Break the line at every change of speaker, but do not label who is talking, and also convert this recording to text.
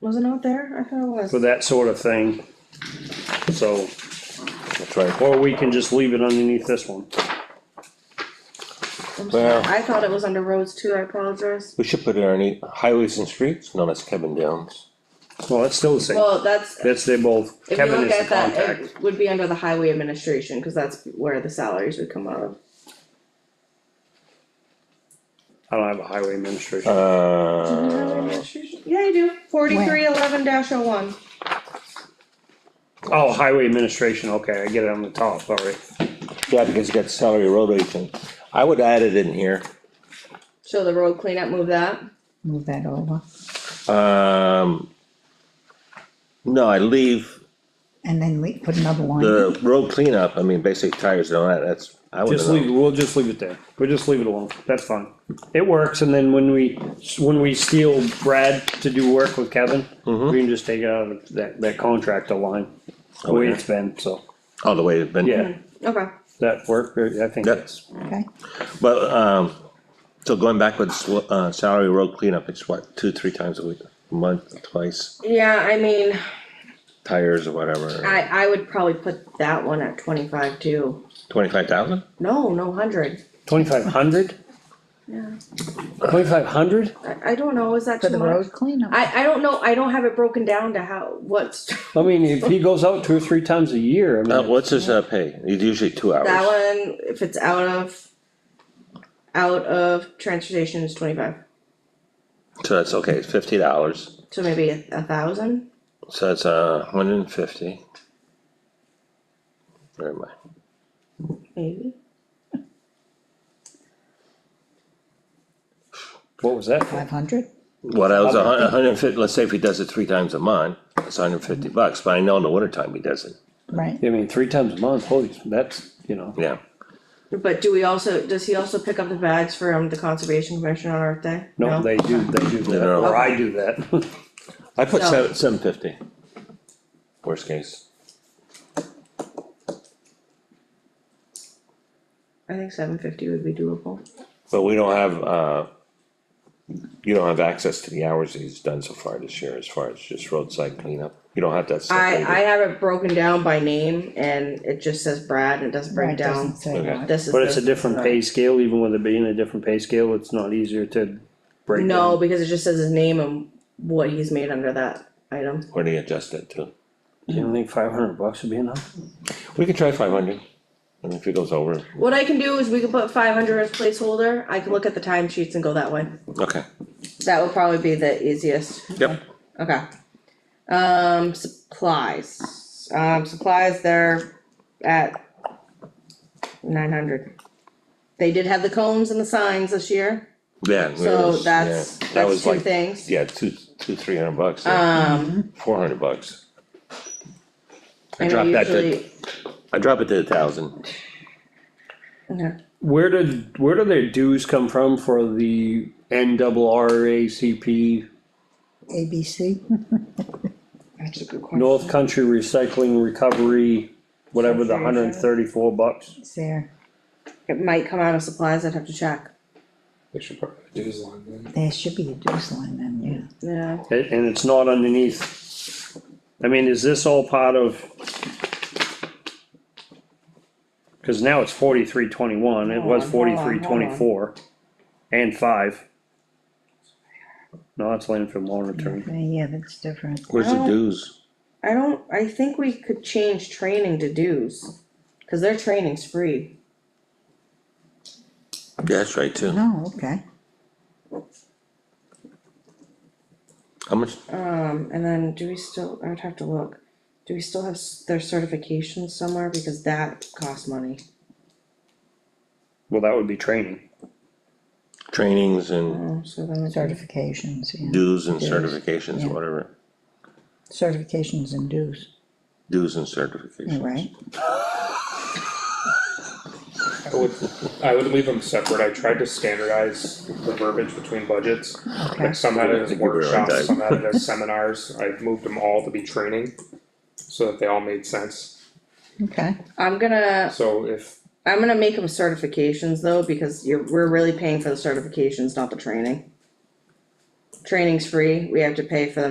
Was it not there? I thought it was.
for that sort of thing. So,
That's right.
or we can just leave it underneath this one.
I'm sorry.
Well-
I thought it was under roads too, I apologize.
We should put it underneath highways and streets, no, that's Kevin Downs.
Well, that's still the same.
Well, that's,
That's, they both,
if you
Kevin
look
is the
at that,
contact.
it would be under the highway administration, cause that's where the salaries would come out of.
I don't have a highway administration.
Uh,
Yeah, you do, forty-three eleven dash oh one.
Oh, highway administration, okay, I get it on the top, alright.
yeah, because you got salary road agent. I would add it in here.
So the road cleanup, move that.
Move that over,
Um. No, I leave
and then le- put another one,
the road cleanup, I mean, basically tires and all that, that's, I would
Just leave,
know.
we'll just leave it there. We'll just leave it alone. That's fine. It works, and then when we, when we steal Brad to do work with Kevin, we can just take it out of that, that contractor line. The way
Okay.
it's been, so,
All the way it's been.
Mm-hmm.
yeah,
Okay,
that worked, I think
Yep.
that's,
okay?
But, um, so going backwards, uh, salary road cleanup, it's what, two, three times a week, a month, twice,
yeah, I mean,
tires or whatever,
I, I would probably put that one at twenty-five too.
twenty-five thousand?
No, no, hundred,
twenty-five hundred?
yeah,
Twenty-five hundred?
I, I don't know, is that
For
too
the
much?
road cleanup,
I, I don't know, I don't have it broken down to how, what's,
I mean, if he goes out two or three times a year, I
Uh,
mean,
what's his, uh, pay? It's usually two
that
hours.
one, if it's out of, out of transportation is twenty-five,
So that's, okay, it's fifty dollars,
so maybe a, a thousand?
so that's, uh, hundred and fifty. Never mind.
Maybe,
what was that?
five hundred,
What else, a hun- a hundred and fifty, let's say if he does it three times a month, it's hundred and fifty bucks, but I know in the winter time he doesn't,
right?
I mean, three times a month, holy, that's, you know,
yeah.
but do we also, does he also pick up the bags for, um, the conservation commission on Earth Day?
no, they do, they do that,
No.
or I do that.
I put
So-
seven, seven fifty. Worst case.
I think seven fifty would be doable,
But we don't have, uh, you don't have access to the hours that he's done so far this year as far as just roadside cleanup. You don't have that
I, I
separated.
have it broken down by name, and it just says Brad, and it doesn't break
Right,
down,
doesn't say
Okay.
what.
this is.
But it's a
the-
different pay scale, even with it being a different pay scale, it's not easier to break down.
No, because it just says his name and what he's made under that item,
Where do you adjust that to?
You don't think five hundred bucks would be enough?
We could try five hundred, and if it goes over,
what I can do is we can put five hundred as placeholder, I can look at the timesheets and go that way.
okay,
That would probably be the easiest.
yep.
Okay. Um, supplies, um, supplies, they're at nine hundred. They did have the cones and the signs this year,
Yeah. it
so
was-
that's,
yeah, that
that's
was
two
like,
things.
Yeah, two, two, three hundred bucks,
Um,
four hundred bucks. I
and
dropped that to,
usually,
I drop it to a thousand.
okay.
Where did, where do their dues come from for the N double R A C P
ABC,
That's a good question.
North Country Recycling Recovery, whatever the hundred and thirty-four bucks?
it's there,
It might come out of supplies, I'd have to check.
They should probably do his line then.
there should be a dues line then, yeah,
Yeah.
And, and it's not underneath. I mean, is this all part of? Cause now it's forty-three twenty-one, it
Hold on, hold
was
on, hold
forty-three
on.
twenty-four and five. No, that's landfill monitoring.
Okay, yeah, that's different.
Where's the
Well-
dues?
I don't, I think we could change training to dues, cause their training's free.
Yeah, That's right too.
Oh, okay,
How much?
Um, and then do we still, I would have to look, do we still have s- their certifications somewhere, because that costs money.
Well, that would be training.
Trainings
Oh,
and
so then it's already,
certifications, yeah,
dues and
Dues,
certifications,
yeah.
whatever.
certifications and dues,
Dues and
yeah,
certifications.
right?
I would, I would leave them separate, I tried to standardize the verbiage between budgets.
Okay,
Like some had it
I
as
think we were on time.
workshops, some had it as seminars, I moved them all to be training. So that they all made sense,
okay,
I'm gonna,
so if,
I'm gonna make them certifications though, because you're, we're really paying for the certifications, not the training. Training's free, we have to pay for them